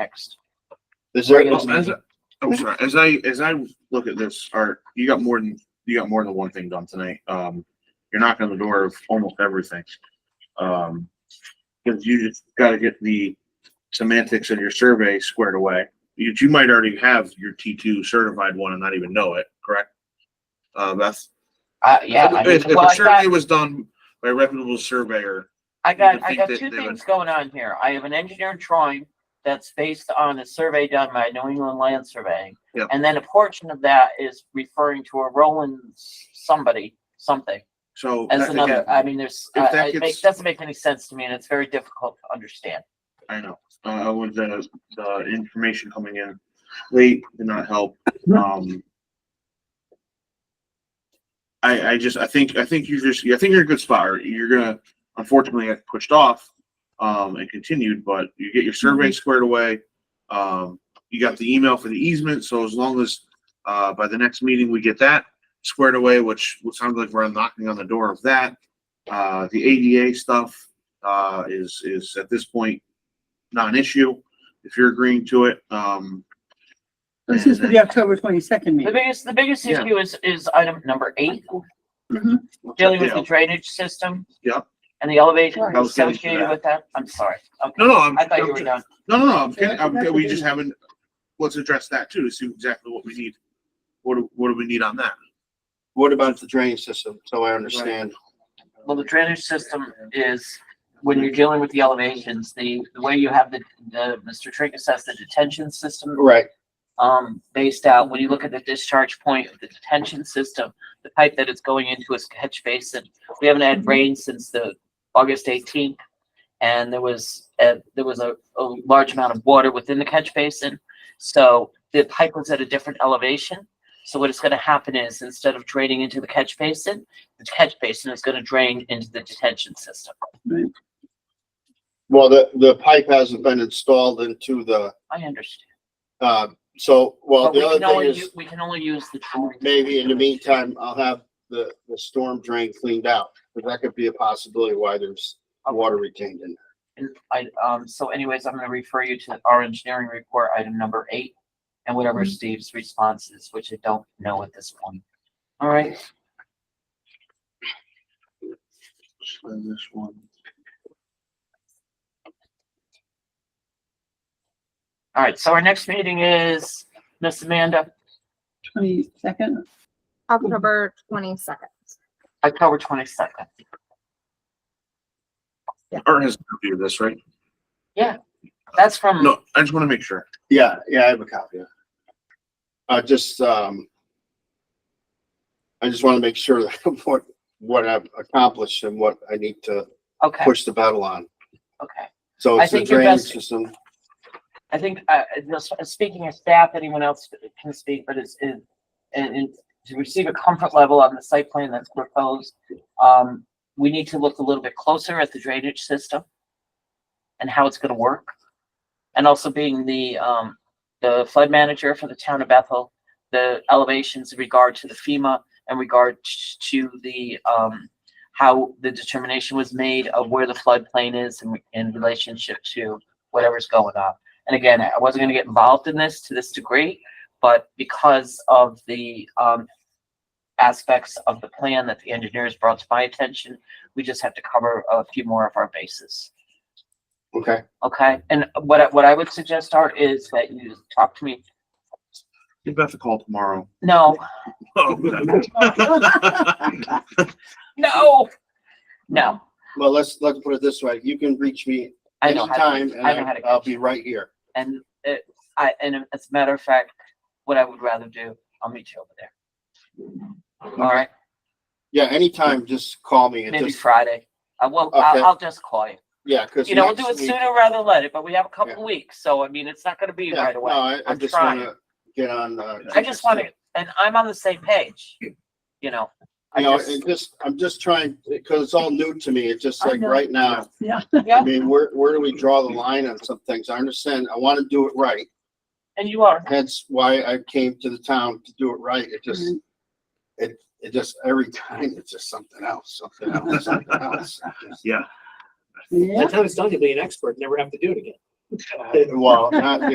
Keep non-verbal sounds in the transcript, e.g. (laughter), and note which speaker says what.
Speaker 1: next. Is there?
Speaker 2: Well, as I- I'm sorry, as I, as I look at this, Art, you got more than, you got more than one thing done tonight. Um, you're knocking on the door of almost everything. Um, cause you just gotta get the semantics of your survey squared away. You, you might already have your T two certified one and not even know it, correct? Uh, that's,
Speaker 1: Uh, yeah, I mean,
Speaker 2: if, if
Speaker 1: well,
Speaker 2: a
Speaker 1: I got,
Speaker 2: survey was done by a reputable surveyor,
Speaker 1: I
Speaker 2: you
Speaker 1: got,
Speaker 2: would
Speaker 1: I
Speaker 2: think
Speaker 1: got
Speaker 2: that
Speaker 1: two
Speaker 2: they would-
Speaker 1: things going on here. I have an engineered drawing that's based on a survey done by New England Land Surveying.
Speaker 2: Yep.
Speaker 1: And then a portion of that is referring to a Roland somebody, something,
Speaker 2: so.
Speaker 1: as
Speaker 2: that-
Speaker 1: another,
Speaker 2: again,
Speaker 1: I mean, there's,
Speaker 2: if
Speaker 1: uh,
Speaker 2: that
Speaker 1: it
Speaker 2: gets-
Speaker 1: makes, doesn't make any sense to me and it's very difficult to understand.
Speaker 2: I know, uh, with the, the information coming in late did not help, um. I, I just, I think, I think you're just, I think you're in a good spot, Art. you're gonna, unfortunately, get pushed off, um, and continued, but you get your survey squared away. Um, you got the email for the easement, so as long as, uh, by the next meeting, we get that squared away, which would sound like we're knocking on the door of that. Uh, the ADA stuff, uh, is, is at this point, not an issue if you're agreeing to it. Um,
Speaker 3: This is for the October twenty-second
Speaker 1: The
Speaker 3: meeting.
Speaker 1: biggest, the biggest
Speaker 2: Yeah.
Speaker 1: issue is, is item number eight,
Speaker 3: Mhm.
Speaker 1: dealing with the
Speaker 2: Yeah.
Speaker 1: drainage system.
Speaker 2: Yep.
Speaker 1: And the elevation
Speaker 3: Right.
Speaker 2: I was finished with
Speaker 1: associated
Speaker 2: that.
Speaker 1: with that. I'm sorry. Okay.
Speaker 2: no, no, I'm,
Speaker 1: I thought
Speaker 2: I'm
Speaker 1: you were
Speaker 2: ju-
Speaker 1: done.
Speaker 2: no, no, no, I'm,
Speaker 3: Yeah,
Speaker 2: kidding. I'm,
Speaker 3: that's
Speaker 2: we
Speaker 3: what
Speaker 2: just
Speaker 3: it is.
Speaker 2: haven't, let's address that too, to see exactly what we need. What do, what do we need on that?
Speaker 4: What about the drainage system? So I understand.
Speaker 1: Well, the drainage system is, when you're dealing with the elevations, the, the way you have the, the, Mr. Trinkus has the detention system,
Speaker 4: Right,
Speaker 1: um, based out, when you look at the discharge point of the detention system, the pipe that it's going into is catch basin. We haven't had rain since the August eighteenth. And there was, uh, there was a, a large amount of water within the catch basin. So the pipe was at a different elevation. So what is gonna happen is instead of draining into the catch basin, the catch basin is gonna drain into the detention system.
Speaker 4: well, the, the pipe hasn't been installed into the,
Speaker 1: I understand.
Speaker 4: uh, so, well,
Speaker 1: But we
Speaker 4: the
Speaker 1: can
Speaker 4: other thing
Speaker 1: only, u-
Speaker 4: is,
Speaker 1: we can only use the. drain.
Speaker 4: maybe in the meantime, I'll have the, the storm drain cleaned out. But that could be a possibility why there's water retained in there.
Speaker 1: And I, um, so anyways, I'm gonna refer you to our engineering report, item number eight, and whatever Steve's response is, which I don't know at this point. All right,
Speaker 2: And this one.
Speaker 1: all right, so our next meeting is, Miss Amanda,
Speaker 3: Twenty-second,
Speaker 5: October twenty-second.
Speaker 1: October twenty-second.
Speaker 2: Art has a copy of this, right?
Speaker 1: That's from,
Speaker 2: No, I just want to make sure.
Speaker 4: Yeah, yeah, I have a copy. of it. I just, um, I just want to make sure that (laughs) what, what I've accomplished and what I need to
Speaker 1: okay,
Speaker 4: push the battle on.
Speaker 1: okay.
Speaker 4: So
Speaker 1: I
Speaker 4: it's the
Speaker 1: think your
Speaker 4: drainage
Speaker 1: best-
Speaker 4: system.
Speaker 1: I think, uh, uh, just speaking of staff, anyone else can speak, but it's, it, and, and to receive a comfort level on the site plan that's proposed, um, we need to look a little bit closer at the drainage system and how it's gonna work. And also being the, um, the flood manager for the town of Bethel, the elevations in regard to the FEMA and regard t- to the, um, how the determination was made of where the floodplain is in, in relationship to whatever's going on. And again, I wasn't gonna get involved in this to this degree, but because of the, um, aspects of the plan that the engineers brought to my attention, we just have to cover a few more of our bases.
Speaker 4: Okay.
Speaker 1: Okay, and what, I- what I would suggest, Art, is that you talk to me,
Speaker 2: Give Beth a call (laughs) tomorrow. Oh,
Speaker 1: no,
Speaker 2: (laughs)
Speaker 1: no, no,
Speaker 4: Well, let's, let's put it this way. You can reach me
Speaker 1: I know how to,
Speaker 4: anytime and
Speaker 1: I know how
Speaker 4: I-
Speaker 1: to
Speaker 4: I'll
Speaker 1: catch
Speaker 4: be right here.
Speaker 1: and it, I, and as a matter of fact, what I would rather do, I'll meet you over there. All right,
Speaker 4: Yeah, anytime, just call me and
Speaker 1: maybe
Speaker 4: just,
Speaker 1: Friday, I will,
Speaker 4: Okay.
Speaker 1: I'll, I'll just call you.
Speaker 4: yeah, because.
Speaker 1: You know, we'll do it sooner rather than later, but we have a couple
Speaker 4: Yeah.
Speaker 1: of weeks, so I mean, it's not gonna be
Speaker 4: Yeah,
Speaker 1: right
Speaker 4: No,
Speaker 1: away.
Speaker 4: I, I
Speaker 1: I'm
Speaker 4: just
Speaker 1: trying.
Speaker 4: wanna get on, uh.
Speaker 1: I just wanna, and I'm on the same page, you know. I
Speaker 4: You know,
Speaker 1: just,
Speaker 4: and just, I'm just trying, because it's all new to me. It's just
Speaker 3: I
Speaker 4: like
Speaker 3: know.
Speaker 4: right now.
Speaker 3: yeah.
Speaker 4: I
Speaker 1: yeah,
Speaker 4: mean, where, where do we draw the line on some things? I understand. I want to do it right.
Speaker 1: and you are,
Speaker 4: Hence why I came to the town to do it right. It just,
Speaker 1: Mm-hmm.
Speaker 4: it, it just, every (laughs) time it's just something else, something else, something else.
Speaker 2: Yeah,
Speaker 3: Yeah,
Speaker 6: By the time it's done, you'll be an expert, never have to do it again. Uh,
Speaker 4: Well, not the